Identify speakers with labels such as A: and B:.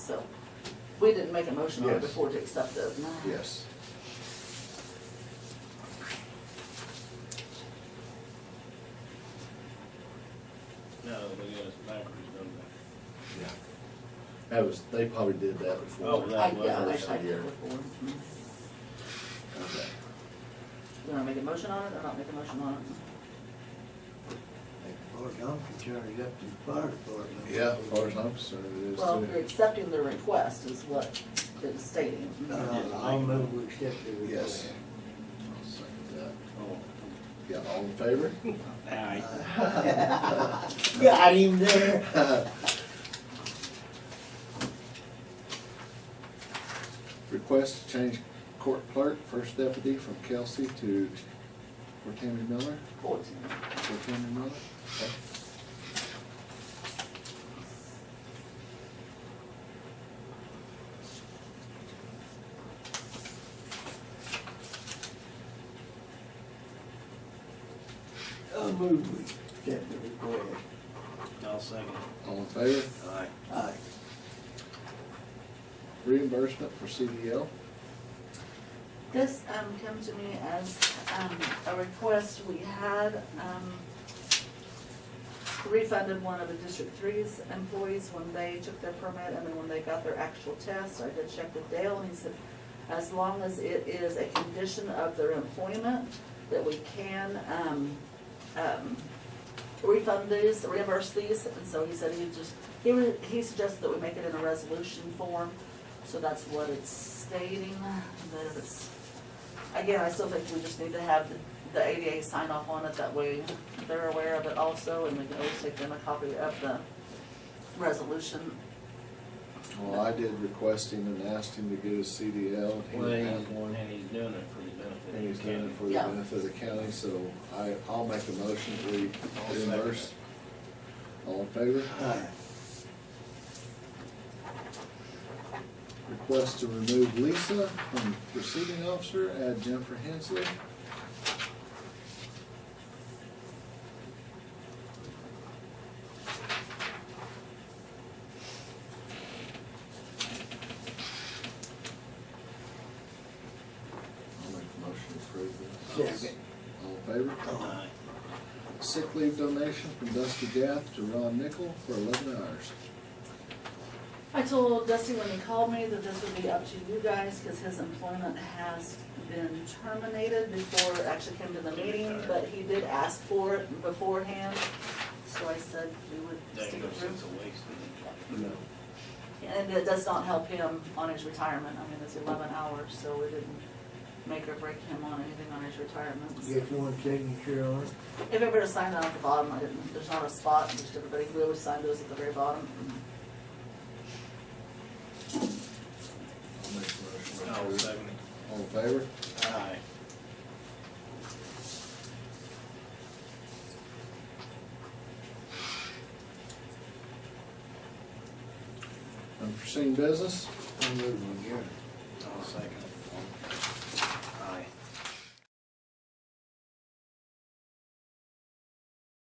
A: We didn't make a motion on it
B: Yes.
A: before to accept it.
B: Yes.
C: No, but yeah, it's backwards, don't they?
B: Yeah. That was, they probably did that before.
C: Oh,
A: I,
C: that- was
A: yeah,
B: first
A: I, I
B: year.
A: did before. Mhm.
B: Okay.
A: You wanna make a motion on it or not make a motion on it?
D: Far as I'm concerned, it's up to the fire department.
B: Yeah, as far as I'm concerned, it is
A: Well,
B: too.
A: you're accepting the request is what it's stating.
D: Uh, I'll move we accept the
B: Yes.
D: request.
B: I'll second that.
C: Oh.
B: Yeah, all in favor?
C: Aye.
D: Got him there.
B: Request to change court clerk, first deputy from Kelsey to, for Tammy Miller,
A: Fourteen.
B: for Tammy Miller. Okay.
D: I'll move we accept the request.
C: I'll second.
B: All in favor?
C: Aye.
D: Aye.
B: Reimbursement for CDL.
A: This, um, comes to me as, um, a request we had, um, refunded one of the District Three's employees when they took their permit and then when they got their actual test. I did check with Dale and he said, as long as it is a condition of their employment, that we can, um, um, refund these, reimburse these. And so he said he just, he, re- he suggested that we make it in a resolution form. So that's what it's stating, that it's, again, I still think we just need to have the- the ADA sign off on it, that way they're aware of it also, and we can always take them a copy of the resolution.
B: Well, I did request him and asked him to get his CDL. He
C: Well,
B: didn't
C: he's-
B: have one.
C: And he's doing it for the benefit.
B: And he's
C: of the
B: done it for the
A: Yeah.
B: benefit of the county, so I, I'll make a motion that
C: I'll
B: we
C: second
B: reimburse. All in favor?
D: Aye.
B: Request to remove Lisa from receiving officer, add Jennifer Hensley. I'll make a motion to approve this.
D: Second.
B: All in favor?
C: county.
B: Sick leave donation from Dusty Gath to Ron Nickel for eleven hours.
A: I told Dusty when he called me that this would be up to you guys, because his employment has been terminated before it actually came to the meeting, but he did ask for it beforehand, so I said we would
C: That
A: stick it
C: goes,
A: through.
C: it's a waste of
B: No.
A: And it does not help him on his retirement, I mean, it's eleven hours, so it didn't make or break him on anything on his retirement.
D: Get one signature on it.
A: If everybody signed it at the bottom, I didn't, there's not a spot, just everybody, we always sign those at the very bottom.
B: I'll make a
C: it.
B: motion. to
C: I'll
B: approve.
C: second it.
B: All in favor?
C: Aye.
B: Unforeseen business?
D: I'll move we adjourn.
C: I'll second it.